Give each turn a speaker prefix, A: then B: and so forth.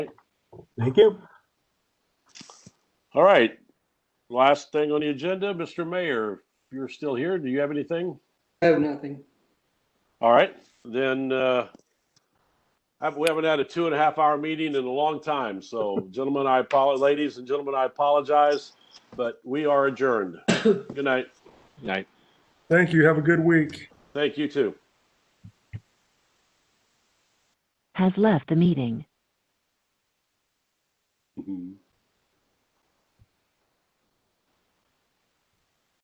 A: Thank you.
B: All right. Last thing on the agenda, Mr. Mayor, if you're still here, do you have anything?
C: I have nothing.
B: All right, then, uh, have- we haven't had a two and a half hour meeting in a long time. So gentlemen, I apologize, ladies and gentlemen, I apologize, but we are adjourned. Good night.
D: Night.
E: Thank you. Have a good week.
B: Thank you too.
F: has left the meeting.